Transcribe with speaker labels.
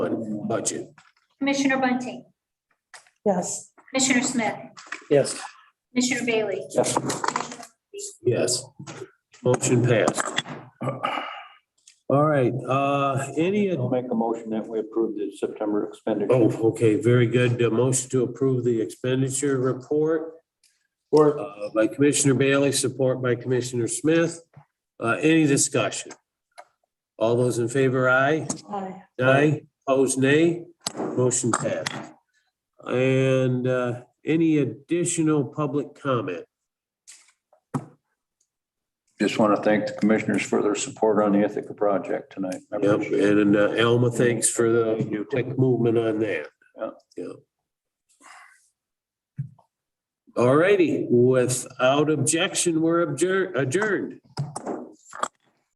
Speaker 1: bud- budget.
Speaker 2: Commissioner Bunting,
Speaker 3: Yes.
Speaker 2: Commissioner Smith,
Speaker 4: Yes.
Speaker 2: Commissioner Bailey.
Speaker 4: Yes.
Speaker 1: Yes. Motion passed. All right, uh, any,
Speaker 4: I'll make a motion that we approve the September expenditure.
Speaker 1: oh, okay, very good. Uh, Motion to approve the expenditure report
Speaker 4: Or
Speaker 1: uh, by Commissioner Bailey, support by Commissioner Smith. Uh, Any discussion? All those in favor, aye?
Speaker 3: Aye.
Speaker 1: Aye, opposed, nay. Motion passed. And uh, any additional public comment?
Speaker 4: just want to thank the commissioners for their support on the Ithaca project tonight. I
Speaker 1: Yep,
Speaker 4: appreciate it.
Speaker 1: and uh, Alma, thanks for the quick movement on that.
Speaker 4: Yeah.
Speaker 1: Yeah. All righty, without objection, we're adjour- adjourned.